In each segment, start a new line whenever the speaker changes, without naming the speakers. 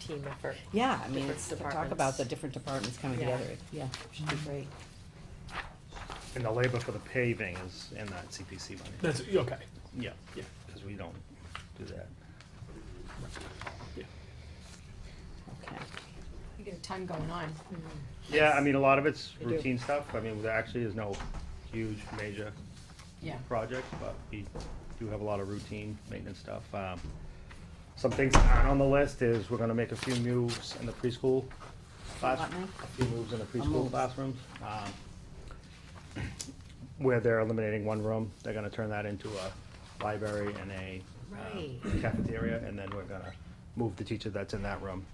team effort.
Yeah, I mean,
Different
it's, to talk about the
departments.
different departments coming
Yeah.
together, Mm-hmm. yeah, should be great.
And the labor for the paving is in that CPC money.
That's, okay,
Yeah,
yeah,
because we don't do that.
yeah.
Okay.
You get a ton going on.
Yeah, I mean, a lot of it's
do.
routine stuff. I mean, there actually is no huge major
Yeah.
projects, but we do have a lot of routine maintenance stuff. Um, Some things that aren't on the list is we're gonna make a few moves in the preschool class,
What now?
a few moves in the preschool
move.
classrooms. um, Where they're eliminating one room, they're gonna turn that into a library and a um,
Right.
cafeteria, and then we're gonna move the teacher that's in that room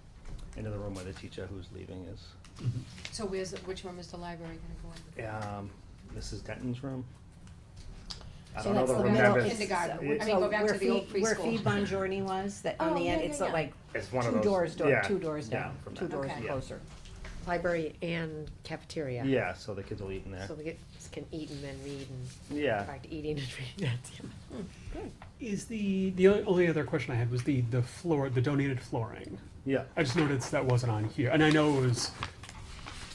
into the room where the teacher who's leaving is.
So where's, which room is the library gonna go
um, Mrs. Denton's room. I
So
don't know
that's
the
the
room
middle-
in?
number.
it's-
Kindergarten,
it-
I mean, go back
where
to the old
Fee- Where Fee
preschool.
Bon Journey was, that on
Oh,
the end,
yeah,
it's
yeah, yeah.
like
It's one of
two
those.
doors, door,
yeah,
two doors down,
from
two
that.
doors
Okay.
closer.
Library and cafeteria.
Yeah, so the kids will eat in there.
So the kids can eat and then read and, in
Yeah,
fact, eating and reading, that's,
Is the, the only- only other question I had was the, the floor, the donated flooring.
yeah.
I just noticed that wasn't on here, and I know it was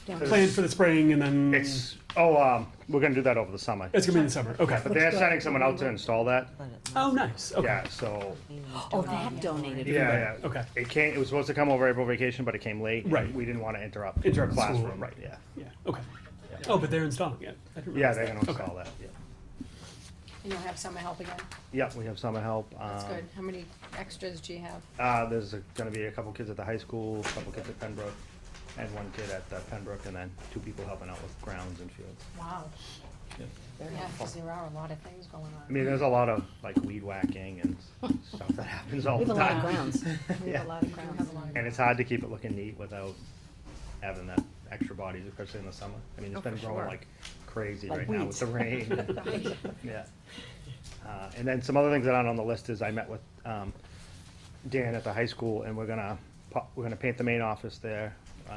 Down.
planned for the spring and then.
It's, oh, um, we're gonna do that over the summer.
It's gonna be in the summer, okay.
But they're sending someone out to install that.
Oh, nice, okay,
Yeah, so,
Oh, that donated.
yeah, yeah.
okay.
It came, it was supposed to come over April vacation, but it came late. and
Right.
We didn't wanna interrupt.
Interrupt the school,
Classroom,
right.
yeah.
Yeah, okay. Oh, but they're installing it. I didn't
Yeah,
realize
they're
that.
gonna
Okay.
install that, yeah.
And you'll have summer help again?
Yeah, we have summer help.
That's
um,
good. How many extras do you have?
Uh, there's a- gonna be a couple kids at the high school, a couple kids at Pembroke, and one kid at uh, Pembroke, and then two people helping out with grounds and fields.
Wow. Yeah, because there are a lot of things going
I
on.
mean, there's a lot of like weed whacking and stuff that happens all
We have
the
a lot of
time.
grounds, we
Yeah.
have a lot of
You
grounds.
have a lot of-
uh, And it's hard to keep it looking neat without having that extra bodies, especially in the summer. I mean,
Oh,
it's been
for
growing
sure.
like crazy
Like
right now
weeds.
with the rain. Yeah. Uh, And then some other things that aren't on the list is I met with um, Dan at the high school, and we're gonna, pu- we're gonna paint the main office there. Um,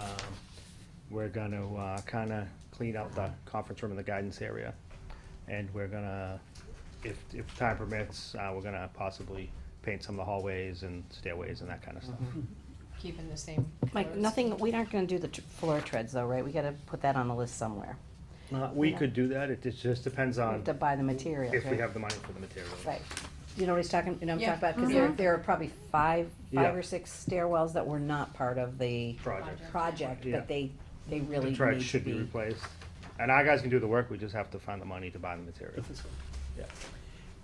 We're gonna kind of clean up the conference room and the guidance area. And we're gonna, if, if time permits, uh, we're gonna possibly paint some of the hallways and stairways and that kind of stuff.
Mm-hmm.
Keeping the same.
Mike,
colors.
nothing, we aren't gonna do the tr- floor treads though, right, we gotta put that on the list somewhere,
Uh, We
Yeah.
could do that, it just- just depends
we
on
have to buy the materials,
Um, if we
right?
have the money for the materials.
Right, you know what he's talking, you know what I'm
Yeah.
talking about, cause there,
Mhm.
there are probably five, five
Yeah.
or six stairwells that were not part of the
Project.
project,
Yeah.
but they, they really
The
need
track
to
should be
be.
replaced. And our guys can do the work, we just have to find the money to buy the material.
That's this one.
Yeah.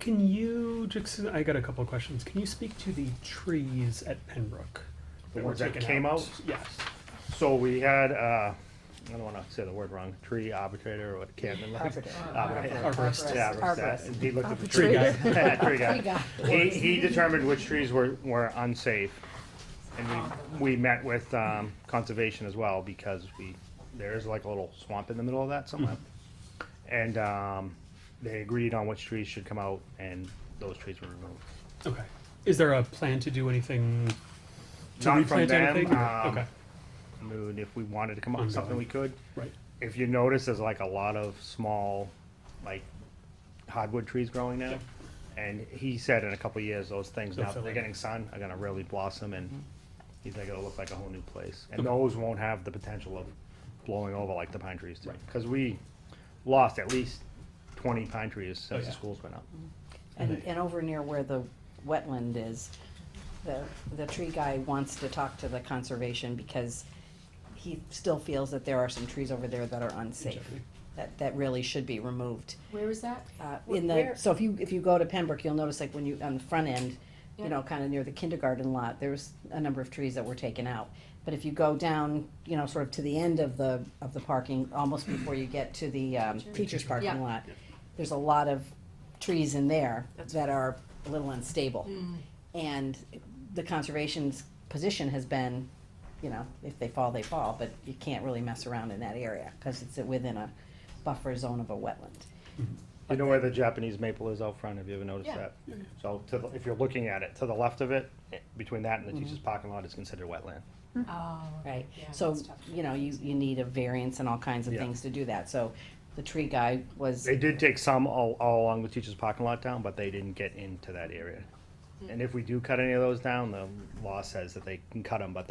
Can you, just, I got a couple of questions. Can you speak to the trees at Pembroke?
The
were
ones that
taken
came out?
Yes.
So we had, uh, I don't wanna say the word wrong, tree arbitrator or what, can't remember.
Arbiter.
Arbitrator.
Arborist.
Yeah, arborist,
Arborist.
that- he looked at the tree guy. Tree guy. He, he determined which trees were, were unsafe. And we, we met with, um, conservation as well, because we, there is like a little swamp in the middle of that somewhere. Mm-hmm. And, um, they agreed on which trees should come out, and those trees were removed.
Okay. Is there a plan to do anything? To
Not from
replant
them,
anything? or-
um,
Okay,
I mean, if we wanted to come up with something, we could.
right.
If you notice, there's like a lot of small, like hardwood trees growing now. And he said in a couple of years, those things,
They'll
now that
fill
they're
in.
getting sun, are gonna really blossom
Mm-hmm.
and he's like, it'll look like a whole new place. And those won't have the potential of blowing over like the pine trees do.
Right.
Cause we lost at least twenty pine trees
Oh,
since the
yeah.
schools went up.
And, and over near where the wetland is, the, the tree guy wants to talk to the conservation because he still feels that there are some trees over there that are unsafe,
Exactly.
that, that really should be removed.
Where is that?
Uh,
Wh-
in the,
where-
so if you, if you go to Pembroke, you'll notice like when you, on the front end, you
Yeah.
know, kinda near the kindergarten lot, there was a number of trees that were taken out. But if you go down, you know, sort of to the end of the, of the parking, almost before you get to the, um, teacher's parking
Yeah.
lot, there's a lot of trees in there
That's-
that are a little unstable. And the conservation's position has been, you know, if they fall, they fall, but you can't really mess around in that area, cause it's within a buffer zone of a wetland.
You know where the Japanese maple is out front, have you ever noticed
Yeah.
that? So to, the- if you're looking at it, to the left of it, eh, between that and the teacher's parking lot is considered wetland.
Oh.
Right,
Yeah,
so,
that's tough.
you know, you, you need a variance and all kinds of
Yeah.
things to do that, so the tree guy was,
They did take some all, all along the teacher's parking lot down, but they didn't get into that area. And if we do cut any of those down, the law says that they can cut them, but